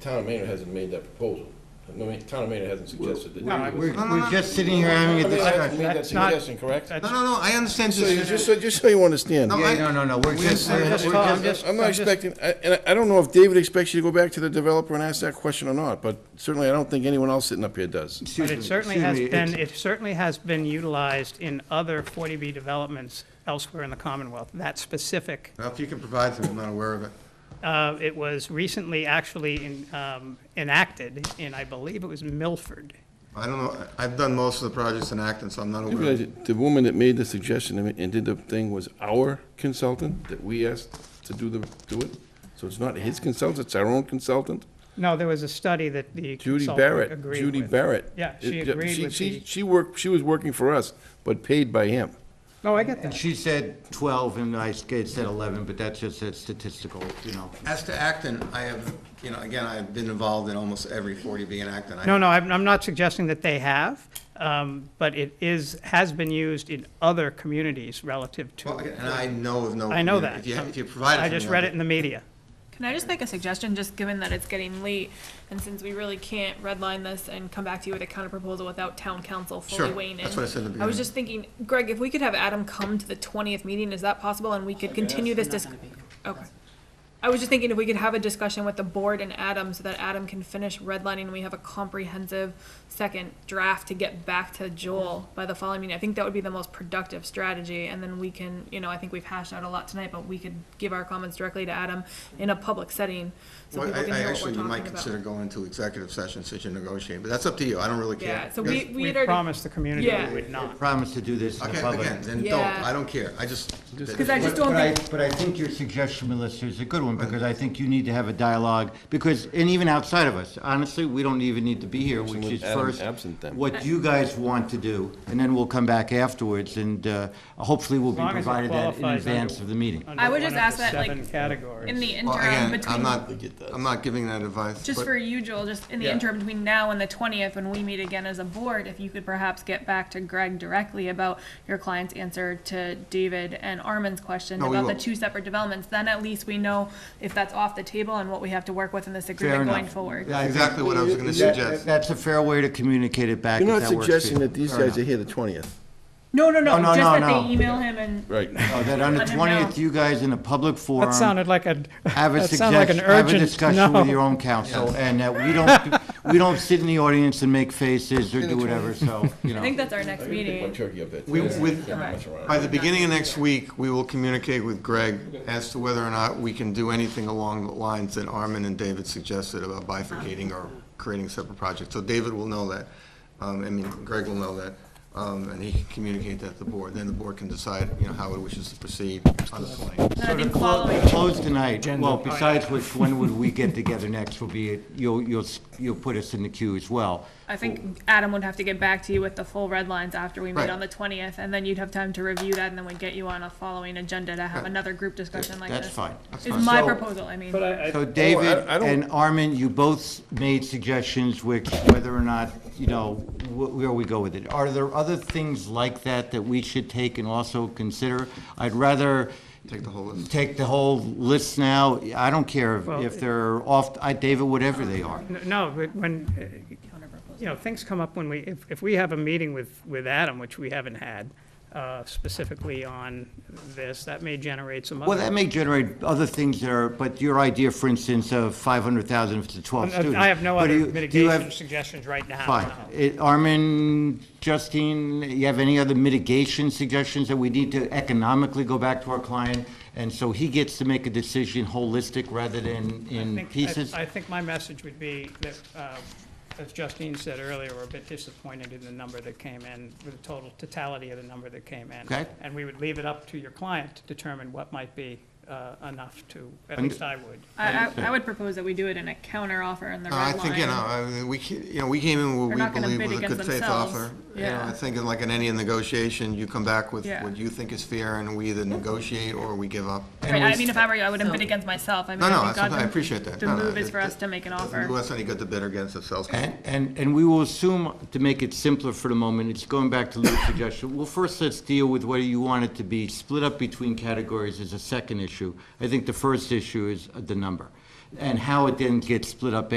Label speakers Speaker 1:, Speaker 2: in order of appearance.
Speaker 1: town of Maynard hasn't made that proposal. I mean, town of Maynard hasn't suggested that.
Speaker 2: No, I
Speaker 1: I
Speaker 2: was-
Speaker 3: We're,
Speaker 2: No,
Speaker 3: we're just sitting here having a
Speaker 1: mean, they
Speaker 3: discussion.
Speaker 1: haven't made that
Speaker 2: That's not-
Speaker 1: suggestion, correct?
Speaker 2: that's-
Speaker 3: No, no, no, I understand
Speaker 1: So you,
Speaker 3: this.
Speaker 1: just so, just so you understand,
Speaker 3: No,
Speaker 2: I-
Speaker 3: Yeah, no, no, no, we're just,
Speaker 2: I'm
Speaker 3: we're
Speaker 2: just-
Speaker 3: we're
Speaker 2: I'm
Speaker 3: just,
Speaker 2: just-
Speaker 1: I'm not
Speaker 2: I'm just-
Speaker 1: expecting, I- and I don't know if David expects you to go back to the developer and ask that question or not, but certainly I don't think anyone else sitting up here does.
Speaker 3: excuse
Speaker 2: But
Speaker 3: me.
Speaker 2: it certainly
Speaker 3: excuse
Speaker 2: has
Speaker 3: me,
Speaker 2: been,
Speaker 3: it's-
Speaker 2: it certainly has been utilized in other 40B developments elsewhere in the Commonwealth, that specific.
Speaker 3: Well, if you can provide some, I'm not aware of it.
Speaker 2: Uh, It was recently actually in- um, enacted in, I believe it was Milford.
Speaker 3: I don't know, I- I've done most of the projects in Acton, so I'm not
Speaker 1: You
Speaker 3: aware.
Speaker 1: realize
Speaker 3: of it.
Speaker 1: that The woman that made the suggestion and and did the thing was our consultant that we asked to do the, do it? So it's not his consultant, it's our own consultant?
Speaker 2: No, there was a study that the
Speaker 1: Judy
Speaker 2: consultant
Speaker 1: Barrett,
Speaker 2: agreed
Speaker 1: Judy
Speaker 2: with.
Speaker 1: Barrett.
Speaker 2: Yeah, she
Speaker 1: It-
Speaker 2: agreed
Speaker 1: she-
Speaker 2: with
Speaker 1: she-
Speaker 2: the-
Speaker 1: She worked, she was working for us, but paid by him.
Speaker 2: No, Oh, I get that.
Speaker 4: She said 12, and I said 11, but that's just a statistical, you know.
Speaker 3: As to Acton, I have, you know, again, I've been involved in almost every 40B in Acton. I-
Speaker 2: No, no, I'm, I'm not suggesting that they have, um, but it is, has been used in other communities relative
Speaker 3: Well,
Speaker 2: to.
Speaker 3: And I know of no.
Speaker 2: I know
Speaker 3: community.
Speaker 2: that.
Speaker 3: If you, if you provide it.
Speaker 2: I
Speaker 3: to me,
Speaker 2: just
Speaker 3: I'll
Speaker 2: read
Speaker 3: do
Speaker 2: it in the media.
Speaker 5: Can I just make a suggestion, just given that it's getting late, and since we really can't redline this and come back to you with a counter proposal without town council fully
Speaker 3: Sure,
Speaker 5: weighing in?
Speaker 3: that's what I said at the
Speaker 5: I
Speaker 3: beginning.
Speaker 5: was just thinking, Greg, if we could have Adam come to the twentieth meeting, is that possible, and we could continue this disc- Okay. I was just thinking if we could have a discussion with the board and Adam, so that Adam can finish redlining, and we have a comprehensive second draft to get back to Joel by the following meeting. I think that would be the most productive strategy, and then we can, you know, I think we've hashed out a lot tonight, but we could give our comments directly to Adam in a public setting, so
Speaker 3: Well,
Speaker 5: people
Speaker 3: I,
Speaker 5: can
Speaker 3: I
Speaker 5: hear what we're
Speaker 3: actually might
Speaker 5: talking
Speaker 3: consider
Speaker 5: about.
Speaker 3: going into executive session since you're negotiating, but that's up to you. I don't really care.
Speaker 5: Yeah, so we, we
Speaker 2: We
Speaker 5: had already,
Speaker 2: promised the community
Speaker 5: Yeah.
Speaker 2: we would not.
Speaker 4: Promise to do this in the
Speaker 3: Okay,
Speaker 4: public.
Speaker 3: again, then don't.
Speaker 5: Yeah.
Speaker 3: I don't care. I just.
Speaker 5: because I just don't
Speaker 4: But I-
Speaker 5: think,
Speaker 4: But I think your suggestion, Melissa, is a good one, because I think you need to have a dialogue, because, and even outside of us, honestly, we don't even need to be here, which is
Speaker 1: Adam
Speaker 4: first,
Speaker 1: absent then.
Speaker 4: what you guys want to do, and then we'll come back afterwards, and uh, hopefully we'll be
Speaker 2: long as it
Speaker 4: provided that in
Speaker 2: qualifies
Speaker 4: advance
Speaker 2: under-
Speaker 4: of the meeting.
Speaker 2: under
Speaker 5: I would
Speaker 2: one
Speaker 5: just
Speaker 2: of the
Speaker 5: ask that, like,
Speaker 2: Seven categories.
Speaker 5: in the
Speaker 3: Well,
Speaker 5: interim
Speaker 3: again,
Speaker 5: between.
Speaker 3: I'm not, I'm not giving that advice.
Speaker 5: Just
Speaker 3: but-
Speaker 5: for you, Joel, just in the
Speaker 2: Yeah.
Speaker 5: interim between now and the twentieth, when we meet again as a board, if you could perhaps get back to Greg directly about your client's answer to David and Armin's question
Speaker 3: No, we
Speaker 5: about the
Speaker 3: will.
Speaker 5: two separate developments, then at least we know if that's off the table and what we have to work with in this
Speaker 4: Fair
Speaker 5: agreement
Speaker 4: enough.
Speaker 5: going forward.
Speaker 4: Yeah, I think
Speaker 3: Exactly what I was gonna
Speaker 4: that-
Speaker 3: suggest.
Speaker 4: That's a fair way to communicate it back, if
Speaker 1: You're
Speaker 4: that
Speaker 1: not
Speaker 4: works for you.
Speaker 1: suggesting that these
Speaker 4: Fair
Speaker 1: guys
Speaker 4: enough.
Speaker 1: are here the twentieth?
Speaker 5: No, no,
Speaker 4: No,
Speaker 5: no,
Speaker 4: no,
Speaker 5: just
Speaker 4: no,
Speaker 5: that
Speaker 4: no.
Speaker 5: they email him and,
Speaker 1: Right.
Speaker 4: Oh, that on the
Speaker 5: Let him
Speaker 4: twentieth,
Speaker 5: know.
Speaker 4: you guys in a public forum.
Speaker 2: That sounded like a,
Speaker 4: Have a
Speaker 2: that sounded like an
Speaker 4: suggestion, have a
Speaker 2: urgent,
Speaker 4: discussion with your
Speaker 2: no.
Speaker 4: own council, and that we don't, we don't sit in the audience and make faces or do whatever, so, you
Speaker 5: I think
Speaker 4: know.
Speaker 5: that's our next
Speaker 1: My
Speaker 5: meeting.
Speaker 1: turkey up there.
Speaker 3: We, with,
Speaker 5: Correct.
Speaker 3: by the beginning of next week, we will communicate with Greg as to whether or not we can do anything along the lines that Armin and David suggested about bifurcating or creating separate projects. So David will know that. Um, I mean, Greg will know that, um, and he can communicate that to the board. Then the board can decide, you know, how it wishes to proceed on the 20th.
Speaker 5: Then I think
Speaker 4: Clo-
Speaker 5: following,
Speaker 4: Close tonight, well, besides which, when would we get together next will be, you'll, you'll, s- you'll put us in the queue as well.
Speaker 5: I think Adam would have to get back to you with the full red lines after we meet
Speaker 3: Right.
Speaker 5: on the twentieth, and then you'd have time to review that, and then we'd get you on a following agenda to have another group discussion like this.
Speaker 4: That's fine.
Speaker 5: Is my
Speaker 4: So-
Speaker 5: proposal, I mean.
Speaker 2: But I, I-
Speaker 3: Oh,
Speaker 4: So David
Speaker 1: I don't-
Speaker 4: and Armin, you both made suggestions which, whether or not, you know, wh- where we go with it. Are there other things like that that we should take and also consider? I'd rather.
Speaker 3: Take the whole list.
Speaker 4: Take the whole list now. I don't care if-
Speaker 2: Well,
Speaker 4: if they're off, I, David, whatever they are.
Speaker 2: N- No, but when, uh, you know, things come up when we, if, if we have a meeting with, with Adam, which we haven't had, uh, specifically on this, that may generate some other.
Speaker 4: Well, that may generate other things that are, but your idea, for instance, of five hundred thousand to twelve students.
Speaker 2: uh, I have no
Speaker 4: but do
Speaker 2: other
Speaker 4: you- do you have-
Speaker 2: mitigation suggestions right now.
Speaker 4: Fine.
Speaker 2: no.
Speaker 4: It- Armin, Justine, you have any other mitigation suggestions that we need to economically go back to our client? And so he gets to make a decision holistic rather than
Speaker 2: I
Speaker 4: in
Speaker 2: think- I-
Speaker 4: pieces?
Speaker 2: I think my message would be that, uh, as Justine said earlier, we're a bit disappointed in the number that came in, with the total totality of the number that came in.
Speaker 4: Okay.
Speaker 2: And we would leave it up to your client to determine what might be uh, enough to, at
Speaker 4: Und-
Speaker 2: least I would.
Speaker 5: I, I, I would propose that we do it in a counter offer in the
Speaker 3: No,
Speaker 5: red
Speaker 3: Uh, I
Speaker 5: line.
Speaker 3: think, you know, I mean, we, ca- you know, we came in
Speaker 5: They're
Speaker 3: where
Speaker 5: not
Speaker 3: we
Speaker 5: gonna
Speaker 3: believe
Speaker 5: bid
Speaker 3: was a
Speaker 5: against
Speaker 3: good faith
Speaker 5: themselves.
Speaker 3: offer. You know,
Speaker 5: Yeah.
Speaker 3: I think in like in any negotiation, you come back with
Speaker 5: Yeah.
Speaker 3: what you think is fair and we either negotiate or we give up.
Speaker 5: Right, I mean, if I were you, I wouldn't bid against myself. I mean,
Speaker 3: No, no,
Speaker 5: I think
Speaker 3: that's something- I
Speaker 5: Godwin-
Speaker 3: appreciate that.
Speaker 5: The
Speaker 3: No, no,
Speaker 5: move is
Speaker 3: it-
Speaker 5: for us
Speaker 3: it
Speaker 5: to make an
Speaker 3: Doesn't do
Speaker 5: offer.
Speaker 3: us any good to bid against ourselves.
Speaker 4: And, and, and we will assume, to make it simpler for the moment, it's going back to Lou's suggestion. Well, first, let's deal with whether you want it to be split up between categories is a second issue. I think the first issue is the number and how it then gets split up